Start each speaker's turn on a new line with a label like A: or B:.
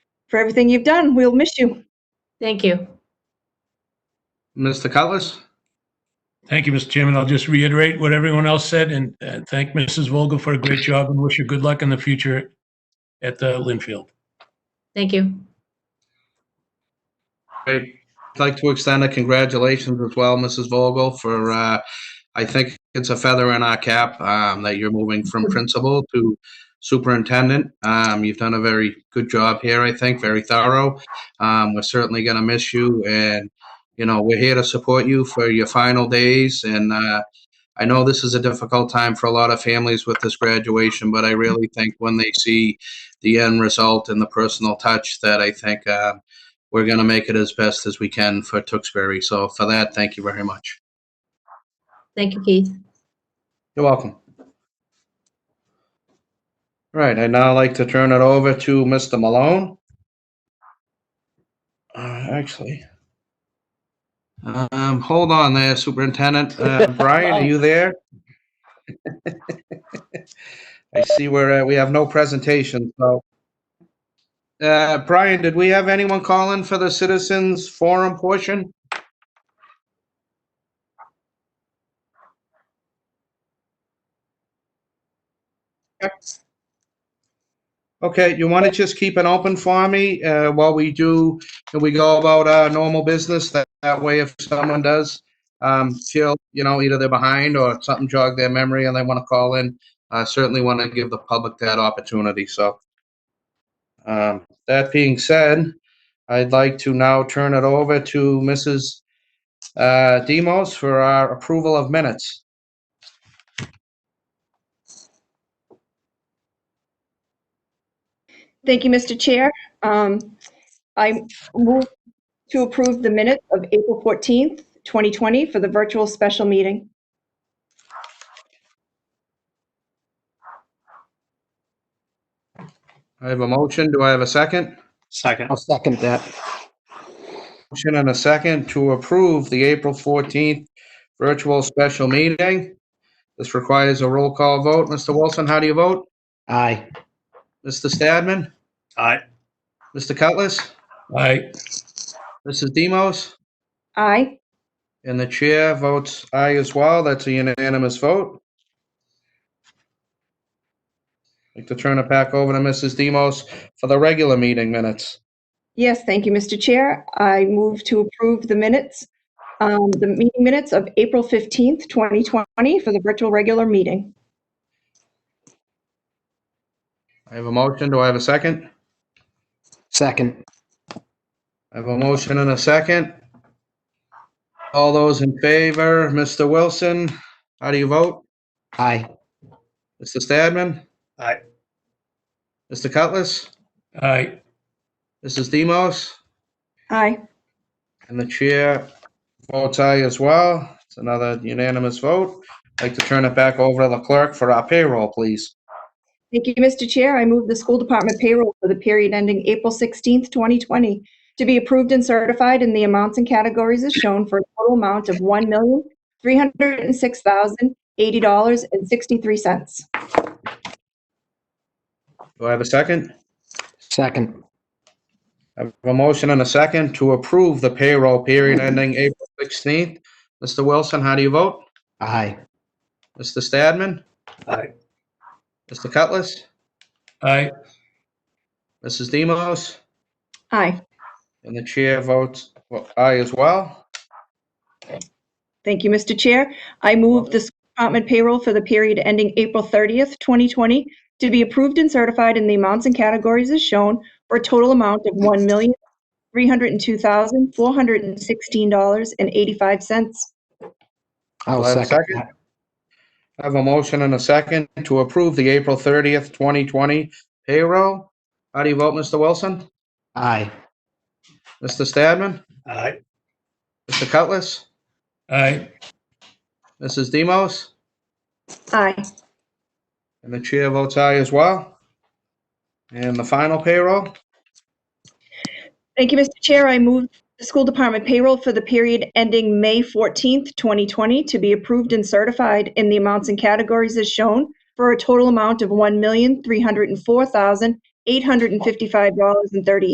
A: for everything you've done. We'll miss you.
B: Thank you.
C: Mr. Cutlass?
D: Thank you, Mr. Chairman. I'll just reiterate what everyone else said and uh, thank Mrs. Vogel for a great job and wish her good luck in the future at the Linfield.
B: Thank you.
C: I'd like to extend a congratulations as well, Mrs. Vogel, for, uh, I think it's a feather in our cap, um, that you're moving from principal to superintendent. Um, you've done a very good job here, I think, very thorough. Um, we're certainly gonna miss you and, you know, we're here to support you for your final days and, uh, I know this is a difficult time for a lot of families with this graduation, but I really think when they see the end result and the personal touch that I think, uh, we're going to make it as best as we can for Tewksbury. So for that, thank you very much.
B: Thank you, Keith.
C: You're welcome. All right, I'd now like to turn it over to Mr. Malone. Uh, Actually, um, hold on there, Superintendent. Uh, Brian, are you there? I see where we have no presentation, so. Uh, Brian, did we have anyone call in for the citizens forum portion? Okay, you want to just keep it open for me uh, while we do, and we go about our normal business? That that way, if someone does um, feel, you know, either they're behind or something jogged their memory and they want to call in, I certainly want to give the public that opportunity, so. um, That being said, I'd like to now turn it over to Mrs. uh, Demos for our approval of minutes.
A: Thank you, Mr. Chair. Um, I move to approve the minutes of April 14th, 2020 for the virtual special meeting.
C: I have a motion. Do I have a second?
E: I'll second that.
C: Motion and a second to approve the April 14th virtual special meeting. This requires a roll call vote. Mr. Wilson, how do you vote?
E: Aye.
C: Mr. Stadman?
F: Aye.
C: Mr. Cutlass?
D: Aye.
C: Mrs. Demos?
A: Aye.
C: And the chair votes aye as well. That's a unanimous vote. I'd like to turn it back over to Mrs. Demos for the regular meeting minutes.
A: Yes, thank you, Mr. Chair. I move to approve the minutes, um, the meeting minutes of April 15th, 2020 for the virtual regular meeting.
C: I have a motion. Do I have a second?
E: Second.
C: I have a motion and a second. All those in favor, Mr. Wilson, how do you vote?
E: Aye.
C: Mr. Stadman?
F: Aye.
C: Mr. Cutlass?
D: Aye.
C: Mrs. Demos?
A: Aye.
C: And the chair votes aye as well. It's another unanimous vote. I'd like to turn it back over to the clerk for our payroll, please.
A: Thank you, Mr. Chair. I move the school department payroll for the period ending April 16th, 2020, to be approved and certified in the amounts and categories as shown for a total amount of $1,306,080.63.
C: Do I have a second?
E: Second.
C: I have a motion and a second to approve the payroll period ending April 16th. Mr. Wilson, how do you vote?
E: Aye.
C: Mr. Stadman?
F: Aye.
C: Mr. Cutlass?
D: Aye.
C: Mrs. Demos?
A: Aye.
C: And the chair votes aye as well.
A: Thank you, Mr. Chair. I move the school department payroll for the period ending April 30th, 2020, to be approved and certified in the amounts and categories as shown for a total amount of $1,302,416.85.
E: I'll
C: Do I have a
E: second
C: second?
E: that.
C: I have a motion and a second to approve the April 30th, 2020 payroll. How do you vote, Mr. Wilson?
E: Aye.
C: Mr. Stadman?
F: Aye.
C: Mr. Cutlass?
D: Aye.
C: Mrs. Demos?
A: Aye.
C: And the chair votes aye as well. And the final payroll?
A: Thank you, Mr. Chair. I move the school department payroll for the period ending May 14th, 2020, to be approved and certified in the amounts and categories as shown for a total amount of $1,304,855.38.